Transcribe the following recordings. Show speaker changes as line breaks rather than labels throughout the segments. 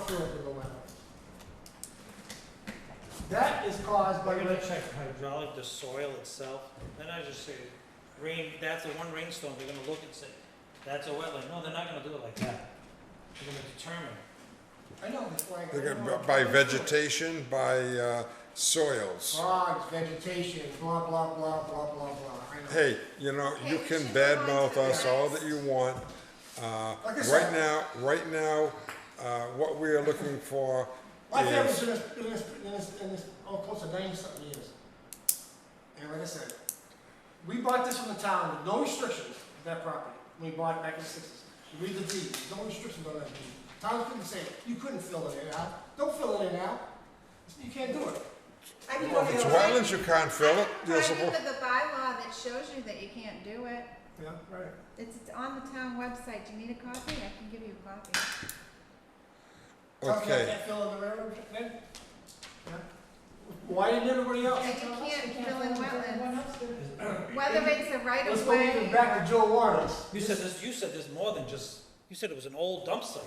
current of the well. That is caused by,
We're gonna
the-
check hydraulic, the soil itself, then I just say, rain, that's the one rainstorm, they're gonna look and say, that's a wetland, no, they're not gonna do it like that. They're gonna determine,
I know, it's like.
They're
I
gonna-
know.
By vegetation, by uh, soils.
Frogs, vegetation, blah, blah, blah, blah, blah, blah, I know.
Hey, you know, you can badmouth us all that you want. Uh,
Like I
Right
said-
now, right now, uh, what we are looking for
My family's
is,
been in this, in this, in this, in this, oh, close to ninety something years. And like I said, we bought this from the town with no restrictions, that property, when we bought it back in the sixties. You read the deed, there's no restrictions on that deed. Town couldn't say, you couldn't fill it in out, don't fill it in out, you can't do it.
I can
Well,
go
if
to
it's
the-
wetlands, you can't fill it.
I
You're
can look
supposed,
at the bylaw that shows you that you can't do it.
Yeah, right.
It's it's on the town website. Do you need a copy? I can give you a copy.
Tell me I
okay.
can't fill in the railroad, then? Yeah. Why didn't everybody else?
Yeah, you can't fill in wetlands.
wetlands.
Whether it's a right
Let's
of
go
way.
even back to Joe Warren's.
you said this, you said there's more than just, you said it was an old dump site.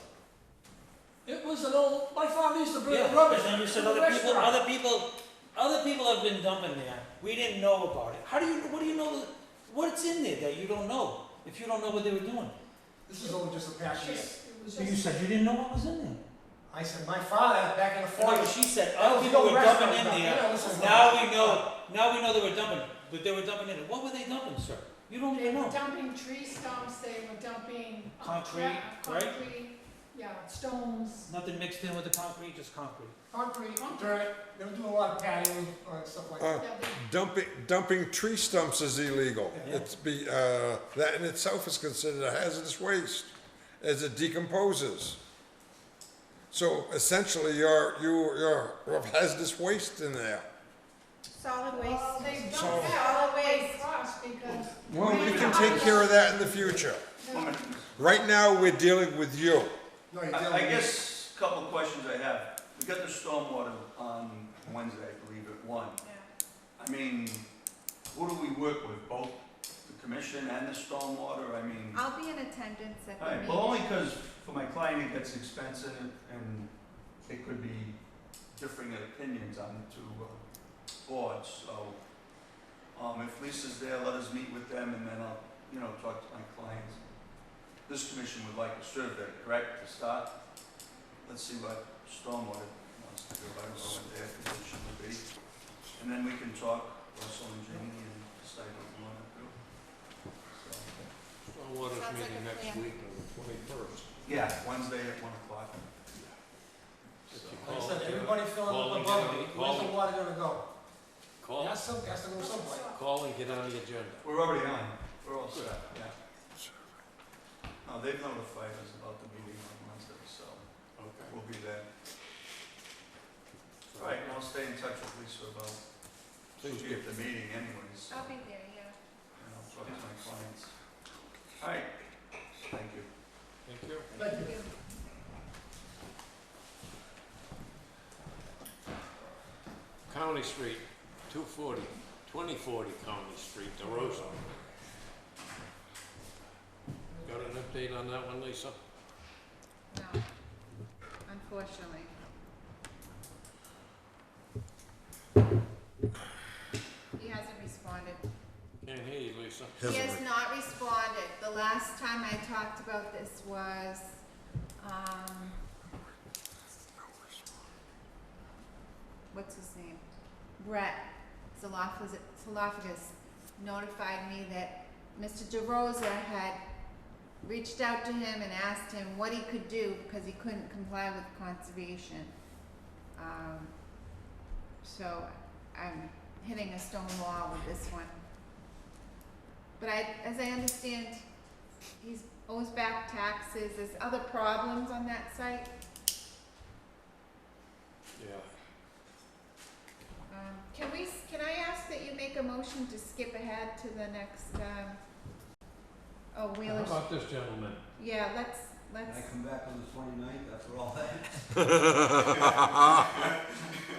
It was an old, my father used to bring
Yeah,
rubbish.
And then you said
to the
other people,
restaurant.
other people, other people have been dumping there, we didn't know about it, how do you, what do you know, that- what's in there that you don't know, if you don't know what they were doing?
This is all just a past year.
So you said you didn't know what was in there.
I said, my father, back in the
No, but
forties,
she said,
That
oh,
was
people
no
were
restaurant
dumping in
dump. Yeah,
there,
this is
now
not-
we know, now we know they were dumping, but they were dumping in it, what were they dumping, sir? You don't
They
even
were
know.
dumping tree stumps, they were dumping. uh,
Concrete,
cra-
right?
Concrete, yeah, stones,
Nothing mixed in with the concrete, just concrete.
concrete, dirt, they were doing a lot of patio or stuff like
Uh,
that.
yeah, they-
Dumping, dumping tree stumps is illegal.
Yeah.
It's be, uh, that in itself is considered a hazardous waste as it decomposes. So essentially, you're, you, you're you have hazardous waste in there.
Solid
well, they
waste.
So-
dumped that all the way
Solid
across because.
Well, we can take care of that in the future. Right now, we're dealing with you.
No, you
I
didn't.
I guess, a couple of questions I have. We got the stormwater on Wednesday, I believe, at one. I mean, who do we work with, both the commission and the stormwater? I mean, all
I'll be in attendance at the
right,
meeting.
well, only because for my client, it gets expensive and it could be differing opinions on the two uh, boards, so. Um, if Lisa's there, let us meet with them and then I'll, you know, talk to my clients. This commission would like a survey, correct, to start? Let's see what stormwater wants to do, I don't know what their position would be. And then we can talk, Russell and Jamie, and decide what we wanna do. So,
Stormwater's
Sounds like
meeting
a
next
plan.
week on the twenty-first.
Yeah, Wednesday at one o'clock.
Like I said, everybody filling
Well,
up the
we
bubble,
did-
where's the
well-
water gonna go? It
Call,
has some, has to go somewhere.
call and get on the agenda.
We're already on, we're all set, yeah. No, they've notified us about the meeting on Wednesday, so
Okay.
we'll be there. Right, and I'll stay in touch with Lisa about,
Please
she'll be at the meeting anyways,
I'll be there, yeah.
and I'll talk to my clients. All right, thank you.
Thank you.
Thank you.
County Street, 240, 2040 County Street, DeRosa. Got an update on that one, Lisa?
No, unfortunately. He hasn't responded.
Can't hear you, Lisa.
He has not responded. The last time I talked about this was, um, what's his name? Brett Zalafis- Zalafakis notified me that Mr. DeRosa had reached out to him and asked him what he could do because he couldn't comply with conservation. Um, so I'm hitting a stone wall with this one. But I, as I understand, he's owes back taxes, there's other problems on that site,
Yeah.
um, can we, s- can I ask that you make a motion to skip ahead to the next, um, oh,
How
Wheeler's,
about this gentleman?
yeah, let's, let's,
come back on the twenty-ninth after all that?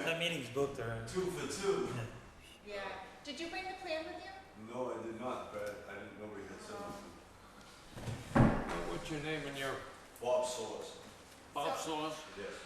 That meeting's booked, all right.
Two for two.
yeah, did you bring the plan with you?
No, I did not, but I didn't, nobody had
said nothing.
What's your name and your
Bob Source,
Bob Source?
yes.